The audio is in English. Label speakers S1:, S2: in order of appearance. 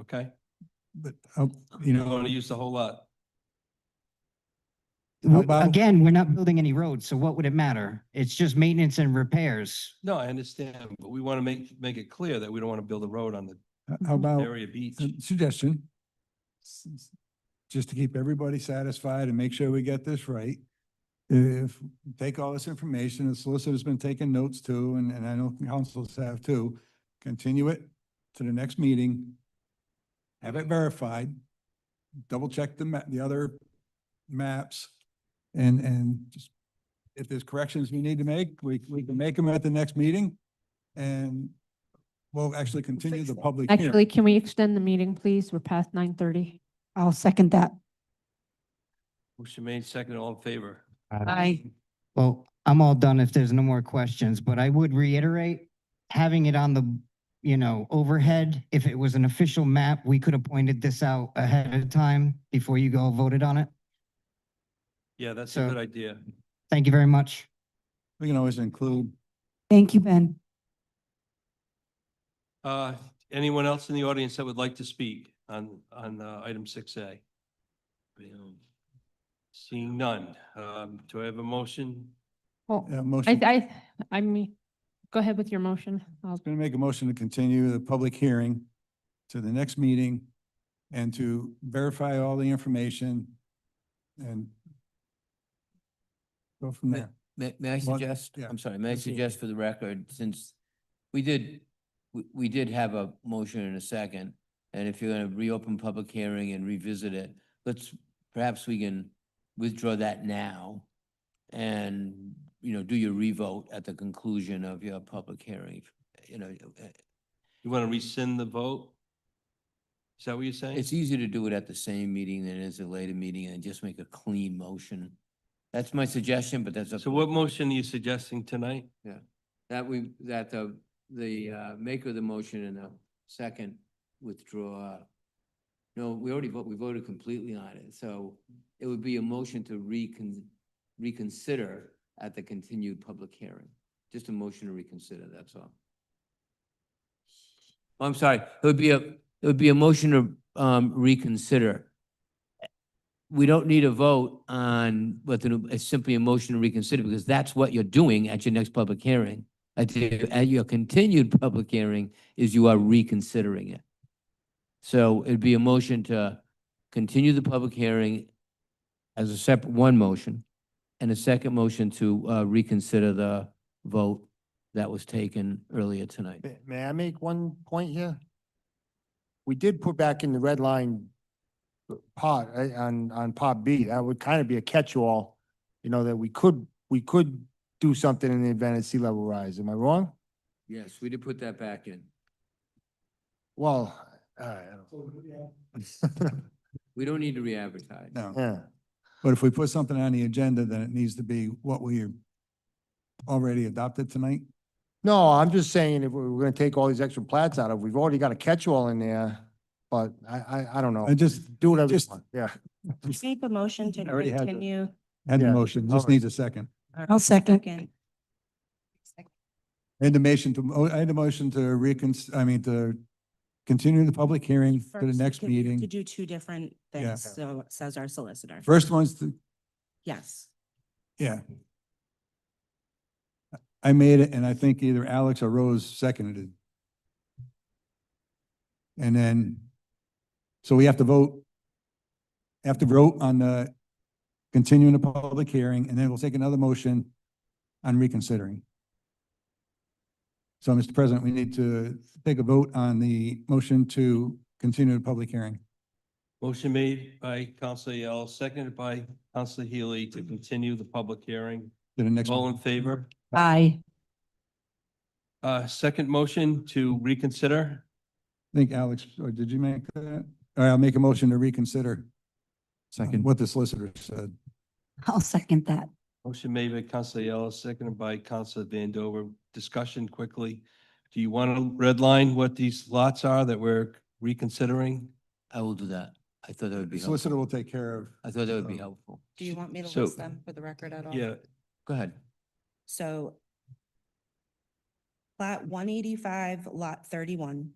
S1: okay?
S2: But, uh, you
S1: You don't
S2: know,
S1: want to use the whole lot.
S2: How
S3: W-
S2: about-
S3: Again, we're not building any roads, so what would it matter? It's just maintenance and repairs.
S1: No, I understand, but we want to make, make it clear that we don't want to build a road on the
S2: how about
S1: area beach.
S2: a suggestion? S- s- Just to keep everybody satisfied and make sure we get this right. If, take all this information, the solicitor's been taking notes too, and, and I know councils have too. Continue it to the next meeting. Have it verified. Double check the ma, the other maps. And, and just, if there's corrections we need to make, we, we can make them at the next meeting. And we'll actually continue the public hearing.
S4: Actually, can we extend the meeting, please? We're past nine thirty.
S5: I'll second that.
S1: Motion made second, all in favor?
S5: Aye.
S3: Well, I'm all done if there's no more questions, but I would reiterate, having it on the, you know, overhead, if it was an official map, we could have pointed this out ahead of time before you all voted on it.
S1: Yeah, that's a
S3: So-
S1: good idea.
S3: Thank you very much.
S2: We can always include,
S5: Thank you, Ben.
S1: Uh, anyone else in the audience that would like to speak on, on, uh, item six A? Seeing none, um, do I have a motion?
S4: Well,
S2: uh,
S4: I,
S2: motion,
S4: I, I mean, go ahead with your motion. I'll-
S2: going to make a motion to continue the public hearing to the next meeting and to verify all the information and go from there.
S6: May, may I
S2: One-
S6: suggest,
S2: yeah,
S6: I'm sorry, may I
S2: proceed.
S6: suggest for the record, since we did, we, we did have a motion in a second, and if you're gonna reopen public hearing and revisit it, let's, perhaps we can withdraw that now and, you know, do your revote at the conclusion of your public hearing, if- you know, uh,
S1: You want to rescind the vote? Is that what you're saying?
S6: it's easier to do it at the same meeting than it is at a later meeting and just make a clean motion. That's my suggestion, but that's up
S1: So
S6: to the
S1: what
S6: board.
S1: motion are you suggesting tonight?
S6: That we, that the, the uh, maker of the motion and the second withdraw. No, we already vote, we voted completely on it, so it would be a motion to recon, reconsider at the continued public hearing. Just a motion to reconsider, that's all. Oh, I'm sorry, it would be a, it would be a motion to um, reconsider. We don't need a vote on what the, new- it's simply a motion to reconsider because that's what you're doing at your next public hearing. At your, at your continued public hearing is you are reconsidering it. So it'd be a motion to continue the public hearing as a separate, one motion, and a second motion to uh, reconsider the vote that was taken earlier tonight.
S7: May- May I make one point here? We did put back in the red line part, eh, on, on part B, that would kind of be a catch-all, you know, that we could, we could do something in the event of sea level rise, am I wrong?
S6: Yes, we did put that back in.
S7: Well, all right, I don't.
S6: We don't need to re-advertise.
S2: No,
S7: Yeah,
S2: but if we put something on the agenda, then it needs to be what we already adopted tonight.
S7: no, I'm just saying if we we're gonna take all these extra plats out of, we've already got a catch-all in there, but I, I, I don't know.
S2: I just
S7: Do whatever you
S2: just-
S7: want, yeah.
S8: Make a motion to
S2: I already had the-
S8: continue.
S2: had the
S7: Yeah,
S2: motion,
S7: all
S2: just
S7: right.
S2: needs a second.
S5: I'll second.
S8: Second.
S2: And the motion to, oh, I had a motion to recon, I mean, to continue the public hearing to the
S8: First,
S2: next
S8: can- we have To
S2: meeting.
S8: do two different
S2: Yeah.
S8: things, so says our solicitor.
S2: First one's to,
S8: Yes.
S2: Yeah. I made it, and I think either Alex or Rose seconded it. And then, so we have to vote, have to vote on the continuing the public hearing, and then we'll take another motion on reconsidering. So, Mr. President, we need to take a vote on the motion to continue the public hearing.
S1: Motion made by Counselor Yell, seconded by Counselor Healy to continue the public hearing.
S2: To the next,
S1: All in favor?
S5: Aye.
S1: Uh, second motion to reconsider.
S2: I think Alex, or did you make that? All right, I'll make a motion to reconsider. Second. What the solicitor said.
S5: I'll second that.
S1: Motion made by Counselor Yell, seconded by Counselor Vandover. Discussion quickly. Do you want to redline what these lots are that we're reconsidering?
S6: I will do that. I thought that would be
S2: The Solicitor
S6: helpful.
S2: will take care of.
S6: I thought that would be
S2: um,
S6: helpful.
S8: Do you want me to
S1: So-
S8: list them for the record at all?
S1: Yeah,
S6: Go ahead.
S8: So plat one eighty-five, lot thirty-one,